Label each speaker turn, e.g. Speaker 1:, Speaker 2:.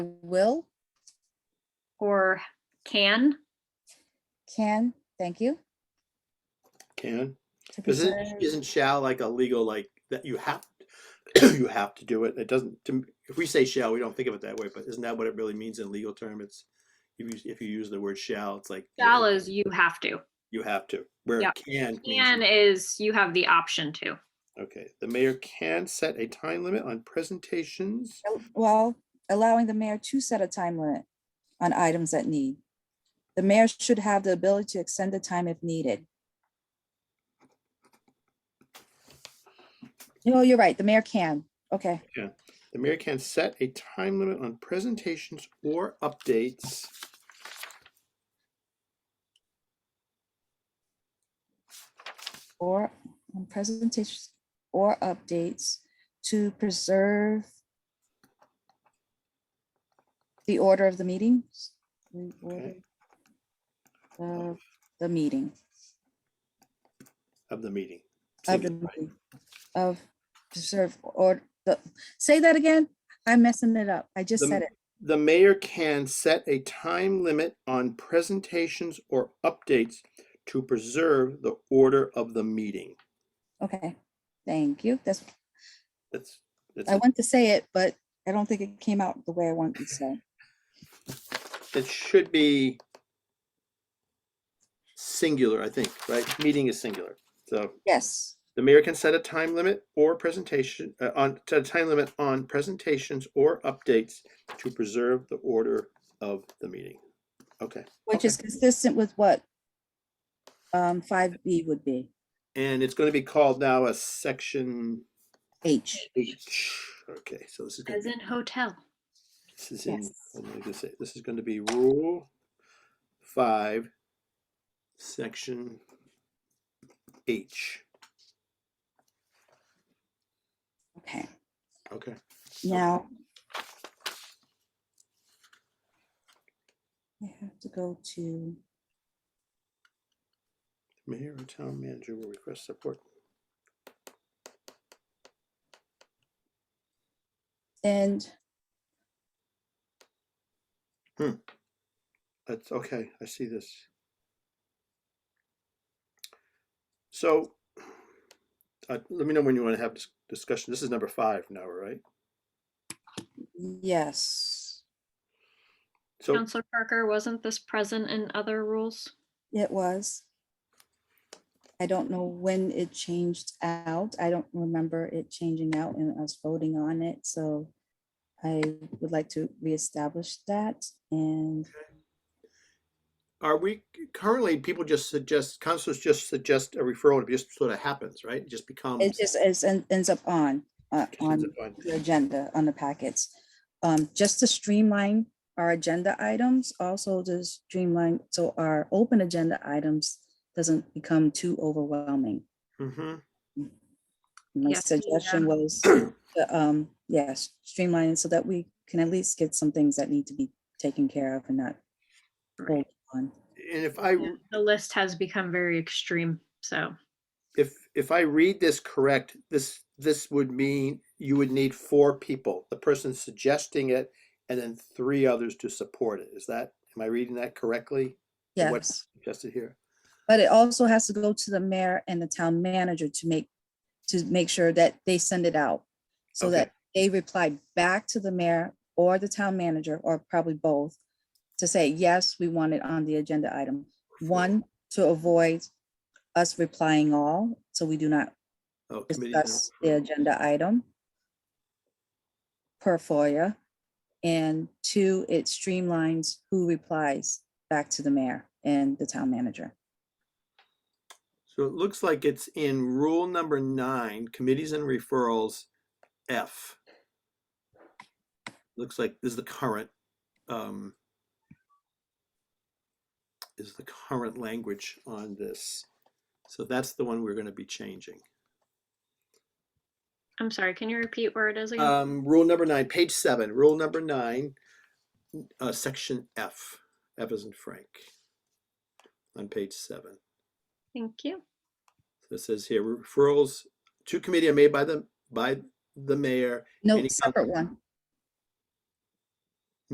Speaker 1: will,
Speaker 2: or can.
Speaker 1: can, thank you.
Speaker 3: Can,
Speaker 1: to preserve-
Speaker 3: isn't, isn't shall like a legal, like, that you have, you have to do it, it doesn't, to m- if we say shall, we don't think of it that way, but isn't that what it really means in legal term? It's, if you, if you use the word shall, it's like. you-
Speaker 2: Shall is you have to.
Speaker 3: You have to, where
Speaker 2: Yeah.
Speaker 3: can. means you-
Speaker 2: Can is you have the option to.
Speaker 3: Okay, the mayor can set a time limit on presentations.
Speaker 1: al- Well, allowing the mayor to set a time limit on items that need. The mayor should have the ability to extend the time if needed. No, you're right. The mayor can. Okay,
Speaker 3: The mayor can set a time limit on presentations or updates.
Speaker 1: or on presentations or updates to preserve the order of the meetings. the order of The meeting.
Speaker 3: Of the meeting.
Speaker 1: of
Speaker 3: Seems
Speaker 1: the
Speaker 3: right.
Speaker 1: movie, of preserve or the, say that again. I'm messing it up. I just
Speaker 3: The
Speaker 1: said
Speaker 3: m-
Speaker 1: it.
Speaker 3: The mayor can set a time limit on presentations or updates to preserve the order of the meeting.
Speaker 1: Okay, thank you. That's,
Speaker 3: That's, that's,
Speaker 1: I
Speaker 3: it.
Speaker 1: want to say it, but I don't think it came out the way I wanted to say.
Speaker 3: it should be singular, I think, right? Meeting is singular. So
Speaker 1: Yes,
Speaker 3: the mayor can set a time limit or presentation, uh, on, set a time limit on presentations or updates to preserve the order of the meeting. Okay.
Speaker 1: which is consistent with what um, five B would be,
Speaker 3: And it's going to be called now a section
Speaker 1: H.
Speaker 3: H. Okay, so this is gonna
Speaker 2: As
Speaker 3: be,
Speaker 2: in hotel.
Speaker 3: this is in,
Speaker 1: yes.
Speaker 3: I'm gonna just say, this is gonna be rule five, section H.
Speaker 1: Okay,
Speaker 3: Okay,
Speaker 1: now. I have to go to,
Speaker 3: mayor or town manager will request support.
Speaker 1: and
Speaker 3: That's okay, I see this. So, uh, let me know when you wanna have this discussion. This is number five now, right?
Speaker 1: yes,
Speaker 3: So,
Speaker 2: Counselor Parker, wasn't this present in other rules?
Speaker 1: It was. I don't know when it changed out. I don't remember it changing out and us voting on it, so I would like to reestablish that and
Speaker 3: are we, currently, people just suggest, councils just suggest a referral, it just sort of happens, right? It just becomes.
Speaker 1: it just is, en- ends up on, uh,
Speaker 3: just ends
Speaker 1: on
Speaker 3: up on-
Speaker 1: the agenda, on the packets. Um, just to streamline our agenda items, also to streamline, so our open agenda items doesn't become too overwhelming.
Speaker 3: Mm-hmm.
Speaker 1: My
Speaker 2: Yes, we,
Speaker 1: suggestion
Speaker 2: um,
Speaker 1: was the, um, yes, streamline so that we can at least get some things that need to be taken care of and not hold on.
Speaker 3: And if I,
Speaker 2: Yeah, The list has become very extreme, so
Speaker 3: if, if I read this correct, this, this would mean you would need four people, the person suggesting it, and then three others to support it. Is that, am I reading that correctly? Or what-
Speaker 1: Yes,
Speaker 3: Suggested here?
Speaker 1: but it also has to go to the mayor and the town manager to make, to make sure that they send it out. So
Speaker 3: Okay.
Speaker 1: that they reply back to the mayor or the town manager, or probably both, to say, yes, we want it on the agenda item. One, to avoid us replying all, so we do not
Speaker 3: Oh, committee and
Speaker 1: discuss the
Speaker 3: referral.
Speaker 1: agenda item per FOIA. And two, it streamlines who replies back to the mayor and the town manager.
Speaker 3: So it looks like it's in rule number nine, committees and referrals, F. Looks like this is the current, um, is the current language on this. So that's the one we're gonna be changing.
Speaker 2: I'm sorry, can you repeat where it is again?
Speaker 3: Um, rule number nine, page seven, rule number nine, n- uh, section F, F is in Frank. On page seven.
Speaker 2: Thank you.
Speaker 3: So it says here referrals to committee are made by the, by the mayor
Speaker 1: No,
Speaker 3: Any coun-
Speaker 1: separate one.